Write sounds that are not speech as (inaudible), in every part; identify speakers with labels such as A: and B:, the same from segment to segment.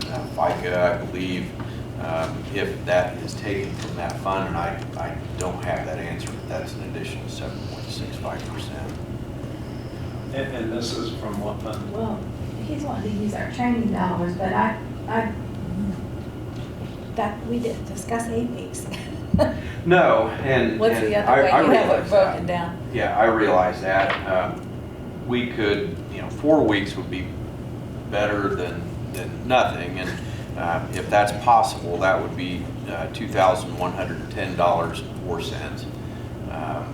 A: FICA, I believe, um, if that is taken from that fund, and I, I don't have that answer, but that's an additional seven point six five percent.
B: And, and this is from what fund?
C: Well, he's wanting to use our training dollars, but I, I, that, we didn't discuss eight (laughs) weeks.
A: No, and.
D: What's
A: and
D: the
A: I-
D: other way
A: I
D: you have
A: realize
D: it
A: that.
D: broken down?
A: Yeah, I realize that. Um, We could, you know, four weeks would be better than, than nothing. And um, if that's possible, that would be uh, $2,110.04. Um,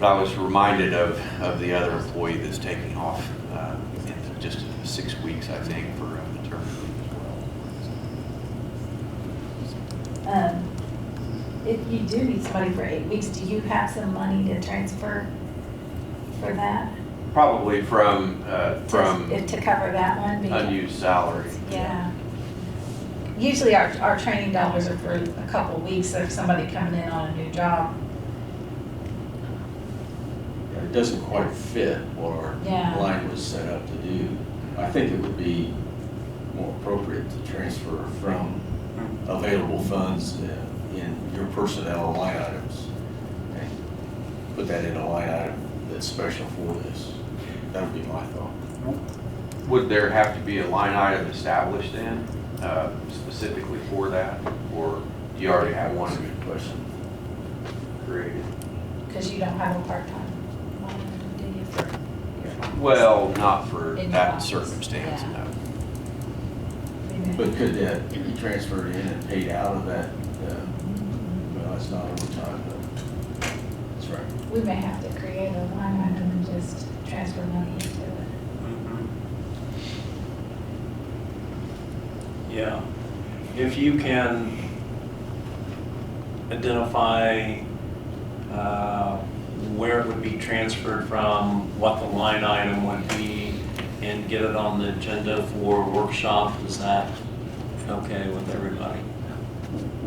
A: But I was reminded of, of the other employee that's taking off uh, in just six weeks, I think, for uh, maternity as well.
C: Um, If you do need somebody for eight weeks, do you have some money to transfer for that?
A: Probably from, uh,
C: To-
A: from
C: To cover that one? because-
A: unused salary.
C: Yeah. Usually our, our training dollars are for a couple of weeks if somebody coming in on a new job.
E: Yeah, It doesn't quite fit what
C: Yeah.
E: our line was set up to do. I think it would be more appropriate to transfer from available funds uh, in your personnel line items and put that in a line item that's special for this. That would be my thought.
A: Would there have to be a line item established then, uh, specifically for that? Or do you already have one
E: That's a good question.
A: created?
C: Because you don't have a part-time monitor, do you, for your office?
A: Well, not for
C: In your
A: that
C: office,
A: circumstance,
C: yeah.
A: no.
E: But could that be transferred in and paid out of that? uh, Well, it's not overtime, but that's right.
C: We may have to create a line item and just transfer money into it.
B: Mhm. Yeah, if you can identify uh, where it would be transferred from, what the line item would be, and get it on the agenda for workshop, is that okay with everybody?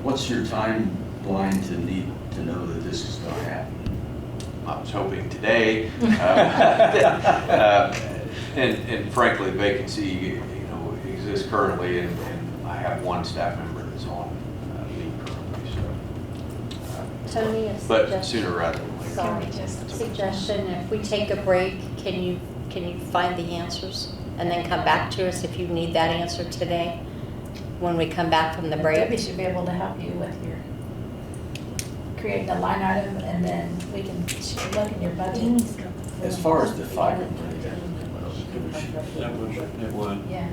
E: What's your timeline to need to know that this is gonna happen?
A: I was hoping today. uh, (laughs) uh, And and frankly, vacancy, you know, exists currently, and and I have one staff member that's on uh, leave currently, so. uh,
F: Tony, a
A: But
F: suggestion.
A: sooner rather than later.
C: Can we
F: Sorry.
C: just-
F: Suggestion, if we take a break, can you, can you find the answers? And then come back to us if you need that answer today, when we come back from the
C: Debbie
F: break.
C: should be able to help you with your, creating a line item and then we can, she can look in your budget.
E: As far as the FICA money, that would come out of the commission.
B: That would, it would.
C: Yeah.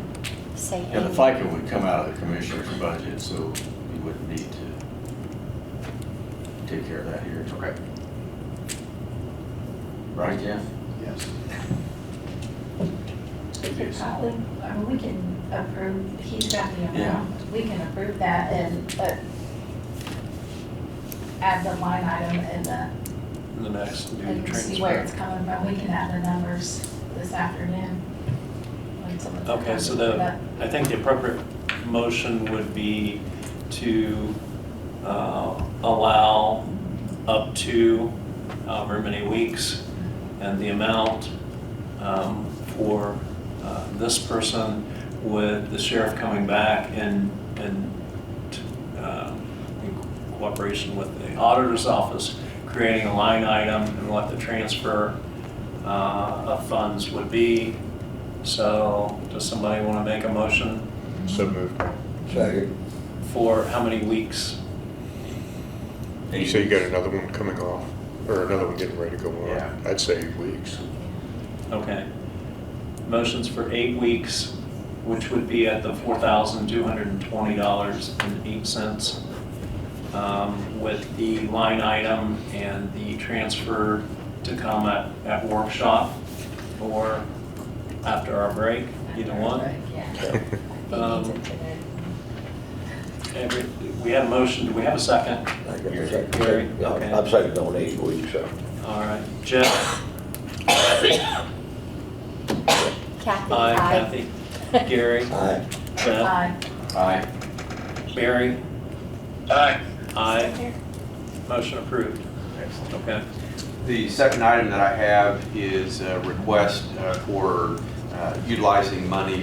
F: Say
E: Yeah, the FICA would come out of the commissioner's budget, so we wouldn't need to take care of that here.
A: Okay,
E: Right, Jeff?
A: yes.
C: We could probably, I mean, we can approve, he's got the
E: Yeah.
C: amount, we can approve that and, uh, add the line item and the,
B: The next new
C: and see where it's
B: transfer.
C: coming from, we can add the numbers this afternoon. when someone's-
B: Okay, so the, I think the appropriate motion would be to uh, allow up to however many weeks and the amount um, for uh, this person with the sheriff coming back and, and uh, in cooperation with the auditor's office, creating a line item and what the transfer uh, of funds would be. So does somebody want to make a motion
G: So moved.
H: Second.
B: for how many weeks?
G: You say you got another one coming off, or another one getting ready to go
A: Yeah.
G: on? I'd say eight weeks.
B: Okay. Motion's for eight weeks, which would be at the four thousand two hundred and twenty dollars and eight cents. Um, with the line item and the transfer to come at, at workshop or after our break, either one. Um,
C: Yeah. I think it's in there.
B: Every, we have a motion, do we have a second?
H: I got the second.
B: Gary,
H: Yeah,
B: okay.
H: I'm second on eight weeks, so.
B: All right, Jeff,
F: Kathy,
B: I,
F: aye.
B: Kathy,
F: (laughs)
B: Gary,
H: Aye.
B: Jeff,
C: Aye.
A: Aye.
B: Barry,
E: Aye.
B: aye. Motion approved. Okay.
A: The second item that I have is a request uh, for uh, utilizing money